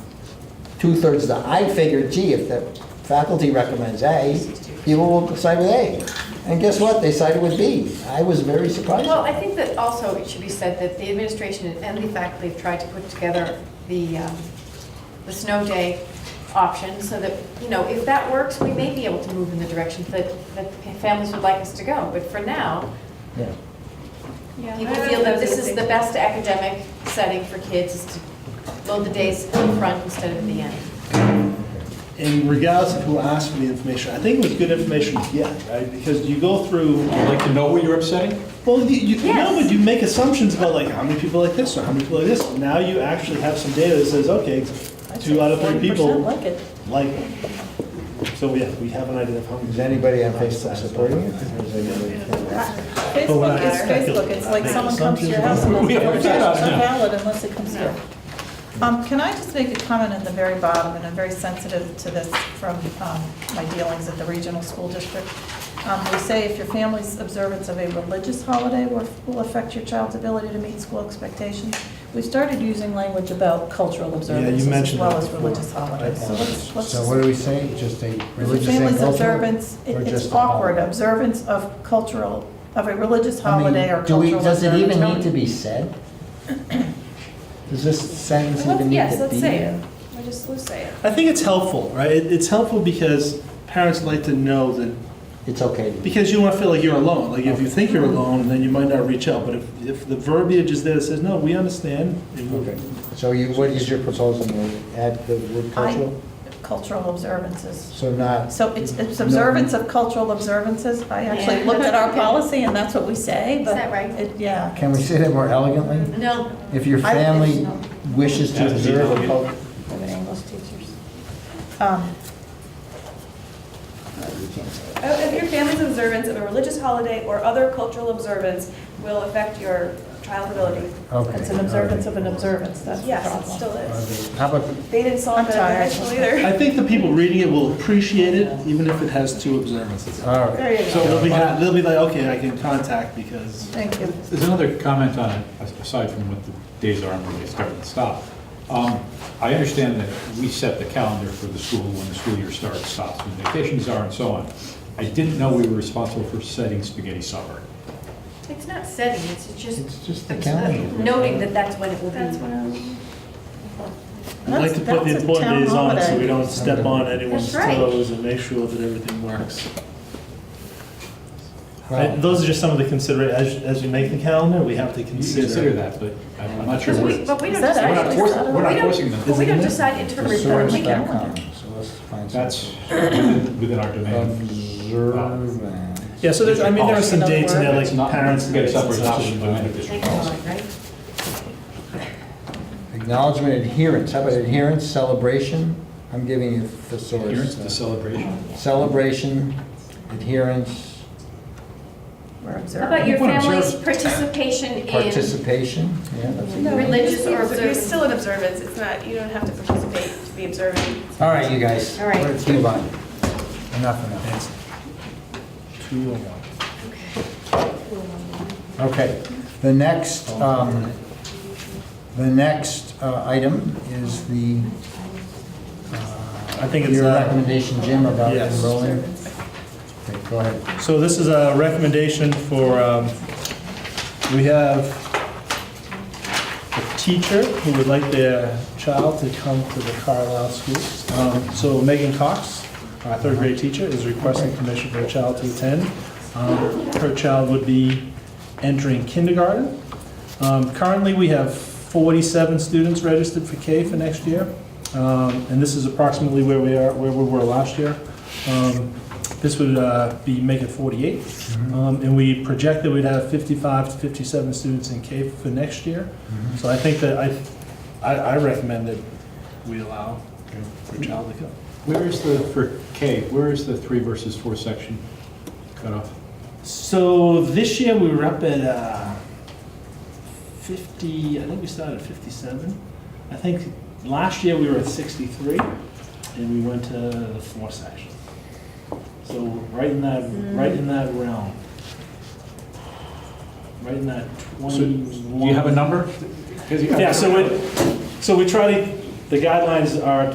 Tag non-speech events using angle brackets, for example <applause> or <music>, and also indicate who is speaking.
Speaker 1: two-thirds of the, I figured, gee, if the faculty recommends A, people will side with A. And guess what? They sided with B. I was very surprised.
Speaker 2: Well, I think that also it should be said that the administration and the faculty have tried to put together the, um, the snow day option so that, you know, if that works, we may be able to move in the direction that, that families would like us to go. But for now,
Speaker 1: Yeah.
Speaker 2: people feel that this is the best academic setting for kids is to load the days in front instead of the end.
Speaker 3: And regardless of who asked for the information, I think it was good information to get, right? Because you go through,
Speaker 4: I'd like to know what you're upsetting?
Speaker 3: well, you, you
Speaker 2: Yes.
Speaker 3: no, but you make assumptions about like how many people like this or how many people like this. Now you actually have some data that says, okay, two out of three people
Speaker 5: like it.
Speaker 3: like. it. So yeah, we have an idea of how many.
Speaker 1: Is anybody on Facebook supporting it? Or is anybody-
Speaker 3: But when
Speaker 5: Facebook
Speaker 3: I-
Speaker 5: is Facebook, it's like
Speaker 3: Make
Speaker 5: someone comes to your
Speaker 3: assumptions.
Speaker 5: house and
Speaker 4: We have
Speaker 5: it's
Speaker 4: to
Speaker 5: not
Speaker 4: do that.
Speaker 5: valid unless it comes here. Um, Can I just make a comment at the very bottom, and I'm very sensitive to this from um, my dealings at the regional school district. Um, We say if your family's observance of a religious holiday will will affect your child's ability to meet school expectations. We've started using language about cultural observances as
Speaker 3: mentioned
Speaker 5: well
Speaker 3: that
Speaker 5: as
Speaker 3: before.
Speaker 5: religious holidays. So let's, let's
Speaker 6: So
Speaker 5: just
Speaker 6: what are we saying, just a
Speaker 5: If
Speaker 6: religious
Speaker 5: your
Speaker 6: and
Speaker 5: family's
Speaker 6: cultural,
Speaker 5: observance, it-
Speaker 6: or
Speaker 5: it's
Speaker 6: just a
Speaker 5: awkward,
Speaker 6: holiday?
Speaker 5: observance of cultural, of a religious
Speaker 1: I mean,
Speaker 5: holiday or
Speaker 1: do we-
Speaker 5: cultural observance.
Speaker 1: Does it even need to be said? Does this sentence even need to be?
Speaker 5: Yes, let's say
Speaker 1: there?
Speaker 5: it. We just, let's say it.
Speaker 3: I think it's helpful, right? It- It's helpful because parents like to know that
Speaker 1: It's okay.
Speaker 3: Because you don't want to feel like you're alone. Like if you think you're alone, then you might not reach out. But if, if the verbiage is there that says, no, we understand. and we'll-"
Speaker 6: Okay,
Speaker 1: So you, what is your proposal, Mary? Add the word
Speaker 5: I-
Speaker 1: cultural?
Speaker 5: Cultural observances.
Speaker 1: So not,
Speaker 5: So it's, it's observance of cultural observances. I actually
Speaker 2: Yeah.
Speaker 5: looked
Speaker 2: <laughs>
Speaker 5: at our policy and that's what we say,
Speaker 2: Is
Speaker 5: but.
Speaker 2: that right?
Speaker 5: it- Yeah.
Speaker 1: can we say that more elegantly?
Speaker 2: No,
Speaker 1: If your
Speaker 5: I-
Speaker 1: family wishes to
Speaker 4: Has to be
Speaker 1: observe a
Speaker 4: delegated.
Speaker 1: cultural.
Speaker 5: We have English teachers. Um,
Speaker 7: Oh, If your family's observance of a religious holiday or other cultural observance will affect your child's ability.
Speaker 1: Okay.
Speaker 5: It's an observance of an observance, that's the
Speaker 7: Yes, it
Speaker 5: problem.
Speaker 7: still is.
Speaker 1: How about,
Speaker 7: They didn't solve
Speaker 5: I'm
Speaker 7: it
Speaker 5: tired.
Speaker 7: initially either.
Speaker 2: <laughs>
Speaker 3: I think the people reading it will appreciate it, even if it has two observances.
Speaker 1: all right.
Speaker 5: There you
Speaker 3: So
Speaker 5: go.
Speaker 3: they'll be, ha- they'll be like, okay, I can contact because.
Speaker 5: Thank you.
Speaker 4: There's another comment on it, aside from what the days are and when they start and stop. Um, I understand that we set the calendar for the school when the school year starts, stops, when vacations are, and so on. I didn't know we were responsible for setting spaghetti supper.
Speaker 2: it's not setting, it's just.
Speaker 1: It's just the
Speaker 2: it's, uh,
Speaker 1: calendar.
Speaker 2: Noting that that's when it will be.
Speaker 7: That's what I'm.
Speaker 3: I'd like to put the
Speaker 5: That's- that's a
Speaker 3: important
Speaker 5: town
Speaker 3: days on so
Speaker 5: holiday.
Speaker 3: we don't step on anyone's
Speaker 2: That's right.
Speaker 3: toes and make sure that everything works.
Speaker 1: Well,
Speaker 3: And Those are just some of the consider, as, as you make the calendar, we have to
Speaker 4: You should consider
Speaker 3: consider.
Speaker 4: that, but I'm not sure
Speaker 2: Because
Speaker 4: what
Speaker 2: we-
Speaker 4: it is.
Speaker 2: But we
Speaker 5: Is
Speaker 2: don't
Speaker 5: that
Speaker 2: decide.
Speaker 4: We're not forcing, we're
Speaker 2: We
Speaker 4: not
Speaker 2: don't-
Speaker 4: forcing
Speaker 2: But we
Speaker 4: them.
Speaker 2: don't decide interim reports. We can-
Speaker 1: thesaurus.com, so let's find
Speaker 4: That's
Speaker 1: something.
Speaker 4: within within our domain.
Speaker 1: Observance.
Speaker 3: Yeah, so there's, I mean, there are some
Speaker 5: Another
Speaker 3: dates in there,
Speaker 5: word?
Speaker 3: like
Speaker 4: It's not-
Speaker 3: parents.
Speaker 4: Spaghetti supper is not
Speaker 3: dates and
Speaker 4: within
Speaker 3: stuff.
Speaker 4: the district policy.
Speaker 2: Right?
Speaker 1: Acknowledgement adherence, how about adherence, celebration? I'm giving you thesaurus.
Speaker 4: Adherence to celebration.
Speaker 1: Celebration, adherence,
Speaker 5: We're
Speaker 2: How
Speaker 5: observing.
Speaker 2: about your
Speaker 4: Well, observe-
Speaker 2: family's participation in
Speaker 1: participation, yeah, that's a good
Speaker 2: No.
Speaker 1: one.
Speaker 2: Religious or
Speaker 7: You're
Speaker 2: observant.
Speaker 7: still an observance. It's not, you don't have to participate to be observant.
Speaker 1: All right, you guys.
Speaker 2: All right.
Speaker 1: Let's move on. Enough, enough.
Speaker 3: Two and one.
Speaker 1: Okay, the next, um, the next uh, item is the,
Speaker 3: I
Speaker 1: uh,
Speaker 3: think it's,
Speaker 1: your
Speaker 3: uh,
Speaker 1: recommendation, Jim, about
Speaker 3: Yes.
Speaker 1: enrolling. Okay, go ahead.
Speaker 3: So this is a recommendation for, um, we have a teacher who would like their child to come to the Carlisle schools. Um, So Megan Cox, our third grade teacher, is requesting permission for her child to attend. Um, Her child would be entering kindergarten. Um, Currently, we have 47 students registered for K for next year, Um, and this is approximately where we are, where we were last year. Um, This would uh, be, make it 48, Um, and we project that we'd have 55 to 57 students in K for next year. So I think that I, I I recommend that we allow for child to come.
Speaker 4: Where is the, for K, where is the three versus four section cutoff?
Speaker 3: So this year, we were up at uh, 50, I think we started at 57. I think last year, we were at 63, and we went to the fourth section. So right in that, right in that realm. Right in that
Speaker 4: So, do
Speaker 3: 21.
Speaker 4: you have a number? 'Cause you-
Speaker 3: Yeah, so it, so we try to, the guidelines are